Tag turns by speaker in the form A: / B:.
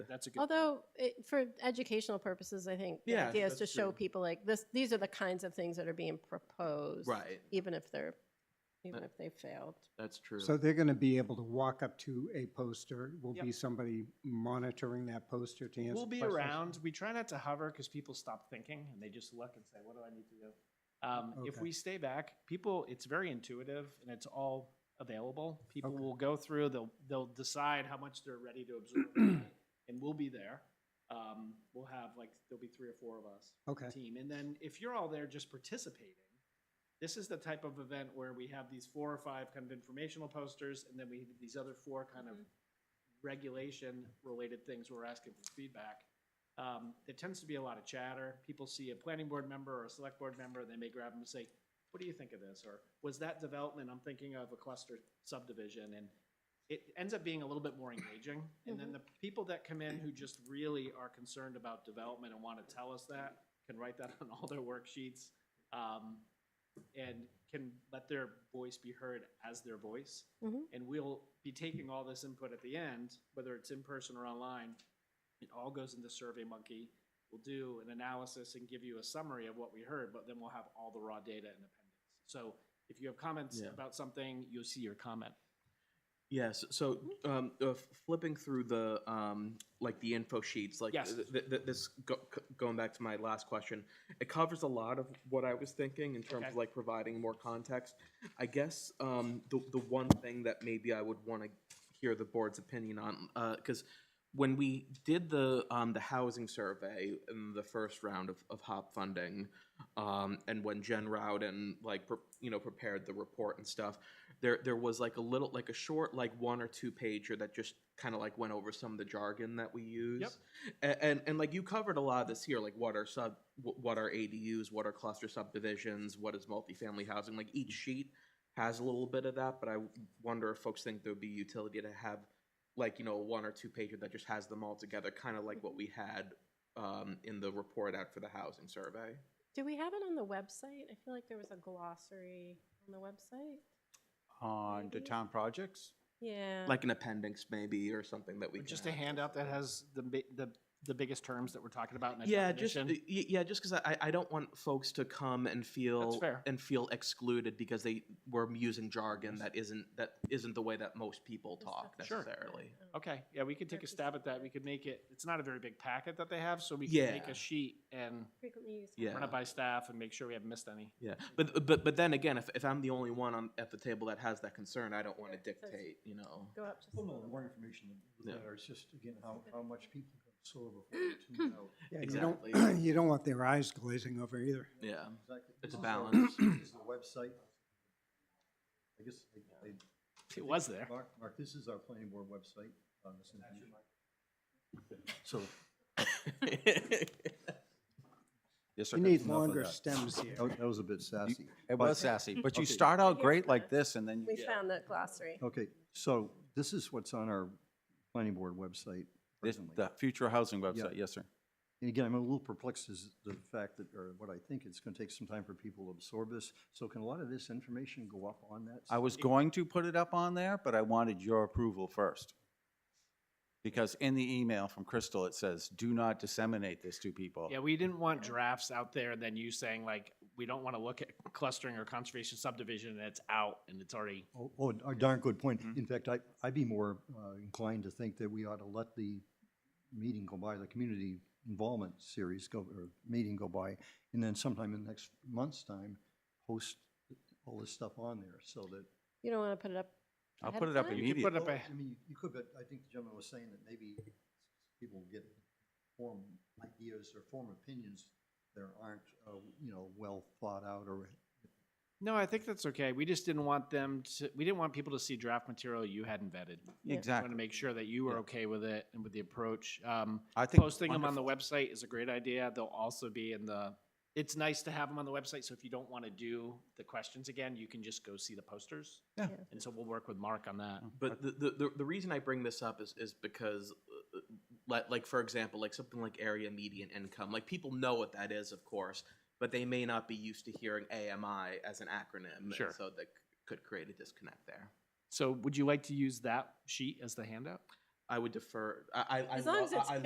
A: That's a good.
B: Although, it- for educational purposes, I think the
A: Yeah,
B: idea is to
A: that's
B: show
A: true.
B: people like this, these are the kinds of things that are being proposed.
A: Right,
B: Even if they're, even
A: Uh,
B: if they failed.
A: that's true.
C: So they're going to be able to walk up to a poster. Will
D: Yep.
C: be somebody monitoring that poster to answer
D: We'll be
C: questions?
D: around. We try not to hover because people stop thinking and they just look and say, "What do I need to do?" Um, If
C: Okay.
D: we stay back, people, it's very intuitive and it's all available. People
C: Okay.
D: will go through. They'll they'll decide how much they're ready to absorb, and we'll be there. Um, we'll have like there'll be three or four of us
C: Okay,
D: team. And then if you're all there just participating, this is the type of event where we have these four or five kind of informational posters, and then we have these other four kind of
B: Mhm.
D: regulation related things we're asking for feedback. Um, there tends to be a lot of chatter. People see a planning board member or a select board member, they may grab them and say, what do you think of this? Or was that development, I'm thinking of a cluster subdivision, and it ends up being a little bit more engaging. And then the people that come in who just really are concerned about development and want to tell us that, can write that on all their worksheets, um, and can let their voice be heard as their voice.
B: Mhm.
D: And we'll be taking all this input at the end, whether it's in person or online. It all goes into Survey Monkey. We'll do an analysis and give you a summary of what we heard, but then we'll have all the raw data in appendix. So if you have comments
A: Yeah.
D: about something, you'll see your comment.
A: Yes, so um, uh, f- flipping through the, um, like, the info sheets, like,
D: Yes.
A: th- th- th- this, go- c- going back to my last question, it covers a lot of what I was thinking in terms
D: Okay.
A: of, like, providing more context. I guess um, the, the one thing that maybe I would want to hear the board's opinion on, because when we did the, um, the housing survey in the first round of, of HOP funding, um, and when Jen Rowden, like, pre- you know, prepared the report and stuff, there there was like a little like a short like one or two pager that just kind of like went over some of the jargon that we use A- and, and like you covered a lot of this here like what are sub wh- what are adus what are cluster subdivisions what is multifamily housing like each sheet has a little bit of that but i wonder if folks think there would be utility to have like you know one or two pager that just has them all together kind of like what we had um, in the report out for the housing survey
B: Do we have it on the website? I feel like there was a glossary on the website.
E: On the
B: Maybe.
E: town projects?
B: Yeah.
A: like an appendix maybe or something that we
D: Or
A: can
D: Just a
A: add.
D: handout that has the, bi- the, the biggest terms that we're talking about in a
A: yeah just
D: definition.
A: y- y- yeah just because I, I don't want folks to come and feel
D: fair.
A: and feel excluded because they were using jargon that isn't that isn't the way that most people
B: Is
A: talk
B: that-
D: Sure.
A: necessarily
B: Oh,
D: Okay, yeah, we could take a stab at that. We could make it, it's not a very big packet that they have, so we could make
A: Yeah.
D: a sheet and
B: Frequently used.
A: Yeah.
D: run it by staff and make sure we haven't missed any.
A: yeah but but but then again if, if i'm the only one on, at the table that has that concern i don't want to
B: Yeah, that's-
A: dictate you know
B: Go up just a
F: Well, no,
B: little.
F: the more information, the
A: Yeah.
F: better. It's just, again, how, how much people can absorb before they tune out.
C: yeah, you don't,
A: Exactly.
C: you don't want their eyes glazing over either.
A: yeah
F: Exactly.
A: It's a
F: This is our-
A: balance.
F: This is the website. I guess they, they.
D: It was there.
F: Mark, Mark, this is our planning board website on this. information. So.
E: Yes, sir.
C: You need longer stems here.
F: That that was a bit sassy.
E: It was sassy, but you
F: Okay.
E: start out
B: Here's
E: great
B: the-
E: like this and then you
B: We found that glossary.
F: Okay, so this is what's on our planning board website.
E: This,
F: presently.
E: the future housing website, yes, sir.
F: And again, I'm a little perplexed as the fact that, or what I think, it's gonna take some time for people to absorb this. So can a lot of this information go up on that?
E: I was going to put it up on there, but I wanted your approval first. Because in the email from Crystal, it says, do not disseminate this to people.
D: Yeah, we didn't want drafts out there and then you saying like, we don't want to look at clustering or conservation subdivision and it's out and it's already.
F: Oh, Oh, a darn good point.
D: Mm-hmm.
F: In fact, I, I'd be more uh, inclined to think that we ought to let the meeting go by, the community involvement series go, or meeting go by, and then sometime in next month's time, post all this stuff on there, so that. oh,
B: You don't want to put it up.
E: I'll
B: ahead
E: put
B: of
E: it up
B: time?
D: You can put
E: immediately.
D: up a,
F: I mean, you could, but I think the gentleman was saying that maybe people will get form ideas or form opinions that aren't, uh, you know, well thought out or
D: no, I think that's okay. We just didn't want them to, we didn't want people to see draft material you hadn't vetted.
B: Yeah.
D: Want to
E: Exactly.
D: make sure that you were
E: Yeah.
D: okay with it and with the approach. Um,
E: I think
D: posting them on the
E: wonderful.
D: website is a great idea. They'll also be in the, it's nice to have them on the website, so if you don't want to do the questions again, you can just go see the posters.
E: Yeah.
B: Yeah.
D: And so we'll work with Mark on that.
E: Mm-hmm.
A: But the, the, the, the reason I bring this up is, is because, uh, like, like, for example, like something like area median income, like people know what that is, of course, but they may not be used to hearing AMI as an acronym. and
D: Sure.
A: So that c- could create a disconnect there.
D: So would you like to use that sheet as the handout?
B: I would defer. I, I, I
A: As long
B: lo-
A: as it's
B: I- I